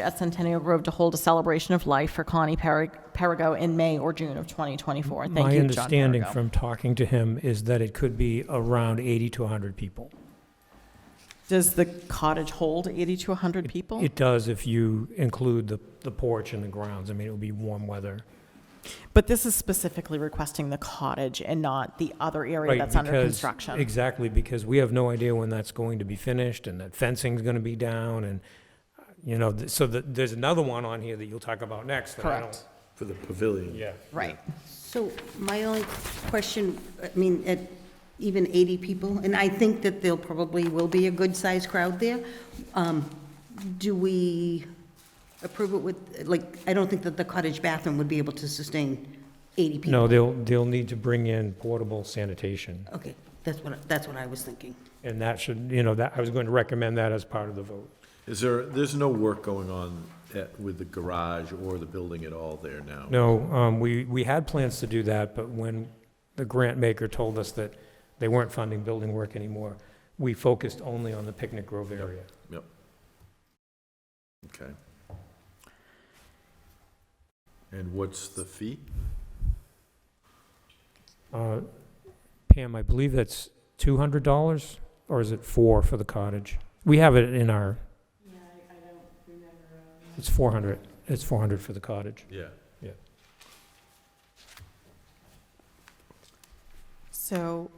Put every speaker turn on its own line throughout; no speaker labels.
at Centennial Grove to hold a celebration of life for Connie Perrig- Perigo in May or June of 2024. Thank
My
you, John
understanding
Perigo.
from talking to him is that it could be around 80 to 100 people.
Does the cottage hold 80 to 100 people?
It does if you include the the porch and the grounds. I mean, it would be warm weather.
But this is specifically requesting the cottage and not the other area
Right,
that's under
because-
construction.
Exactly, because we have no idea when that's going to be finished, and that fencing's gonna be down, and, uh, you know, th- so that, there's another one on here that you'll talk about next that I
Correct.
don't.
For the pavilion.
Yeah.
Right.
So my only question, I mean, at even 80 people, and I think that there'll probably will be a good-sized crowd there, um, do we approve it with, like, I don't think that the cottage bathroom would be able to sustain 80 people.
No, they'll, they'll need to bring in portable sanitation,
Okay, that's what, that's what I was thinking.
and that should, you know, that, I was going to recommend that as part of the vote.
Is there, there's no work going on at, with the garage or the building at all there now?
No, um, we, we had plans to do that, but when the grant maker told us that they weren't funding building work anymore, we focused only on the Picnic Grove area.
Yep. Okay. And what's the fee?
Uh, Pam, I believe that's two hundred dollars, or is it four for the cottage? We have it in our. Yeah, I, I don't remember. It's four hundred, it's four hundred for the cottage.
Yeah.
So,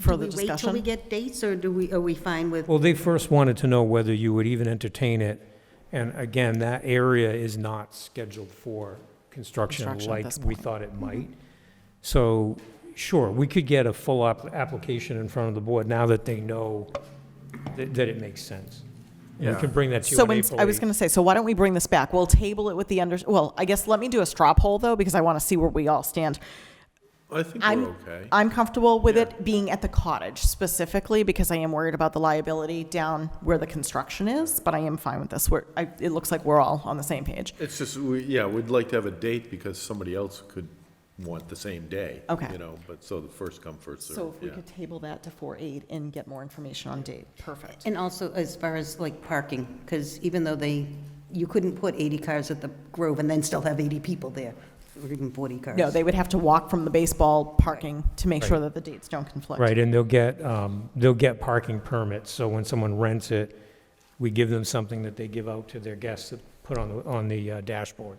further
Do we wait till
discussion?
we get dates, or do we, are we fine with,
Well, they first wanted to know whether you would even entertain it, and again, that area is not scheduled for construction
Construction at
like
this
we
point. Mm-hmm.
thought it might. So, sure, we could get a full app- application in front of the board now that they know that, that it makes sense. We
Yeah.
can bring that to you
So
on
when,
April
I was
8th.
going to say, so why don't we bring this back? We'll table it with the under, well, I guess let me do a straw poll though, because I want to see where we all stand.
I think
I'm,
we're okay.
I'm comfortable with it being at the cottage specifically because I am worried about the liability down where the construction is, but I am fine with this. We're, I, it looks like we're all on the same page.
It's just, we, yeah, we'd like to have a date because somebody else could want the same day.
Okay.
You know, but so the first come, first
So
served,
if we
yeah.
could table that to four eight and get more information on date, perfect.
and also as far as like parking? Because even though they, you couldn't put 80 cars at the Grove and then still have 80 people there, or even 40 cars.
No, they would have to walk from the baseball parking to make sure that the dates don't conflict.
Right, and they'll get, um, they'll get parking permits, so when someone rents it, we give them something that they give out to their guests to put on, the on the uh, dashboard.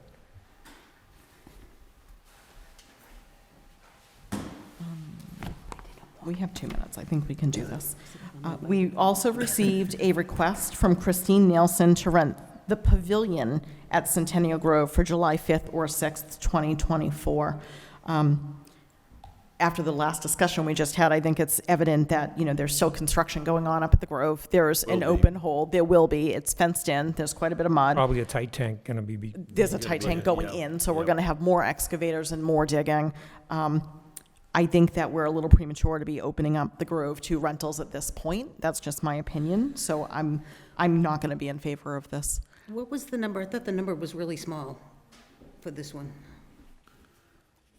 We have two minutes. I think we can do this. Uh, We also received a request from Christine Nielsen to rent the pavilion at Centennial Grove for July 5th or 6th, 2024. Um, After the last discussion we just had, I think it's evident that, you know, there's still construction going on up at the Grove. There's an
Will be.
open hole. There will be. It's fenced in. There's quite a bit of mud
Probably a tight tank gonna be, be-
there's a tight tank going
Yeah.
in, so we're
Yeah.
going to have more excavators and more digging. Um, I think that we're a little premature to be opening up the Grove to rentals at this point. That's just my opinion, so I'm, I'm not going to be in favor of this.
What was the number? I thought the number was really small for this one.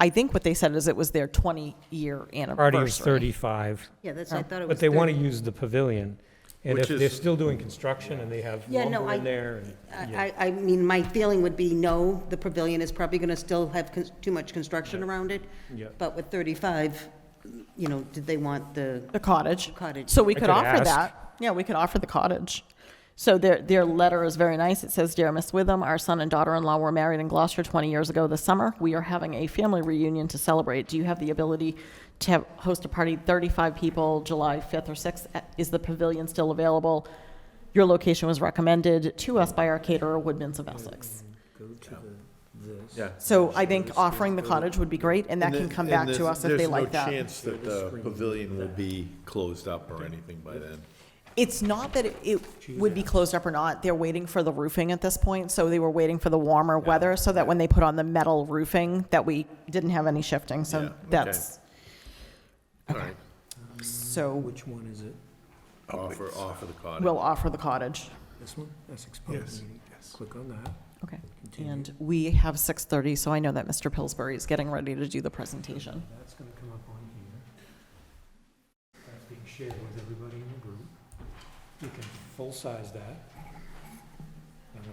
I think what they said is it was their 20-year anniversary.
already was thirty-five,
Yeah, that's, I thought
Oh,
it was.
but they wanna
30.
use the pavilion. And if
Which
they're
is-
still doing construction and they have
Yeah, no,
lumber in
I-
there, and-
I, I I mean, my feeling would be no, the pavilion is probably gonna still have cons- too much construction around it.
Yeah.
But with thirty-five, you know, did they want the,
The cottage.
Cottage.
So we
I
could
could
offer
ask.
that. Yeah, we could offer the cottage. So their, their letter is very nice. It says, Dear Miss Witham, our son and daughter-in-law were married in Gloucester 20 years ago this summer. We are having a family reunion to celebrate. Do you have the ability to have, host a party, 35 people, July 5th or 6th? Uh, Is the pavilion still available? Your location was recommended to us by our caterer, Woodman's of Essex.
Yeah.
So I think offering the cottage would be great, and that
And
can
the-
come
and
back
there's-
to us if they like that.
There's no chance that the pavilion will be closed up or anything by then.
It's not that it- it would be closed up or not, they're waiting for the roofing at this point, so they were waiting for the warmer weather, so that when they put on the metal roofing, that we didn't have any shifting,
Yeah,
so
okay.
that's,
All right,
so
Which one is it?
offer, offer the cottage.
we'll offer the cottage.
This one? Essex Public Meeting. Click on that.
Okay. And we have 6:30, so I know that Mr. Pillsbury is getting ready to do the presentation.
That's gonna come up on here. That's being shared with everybody in the group. You can full-size that.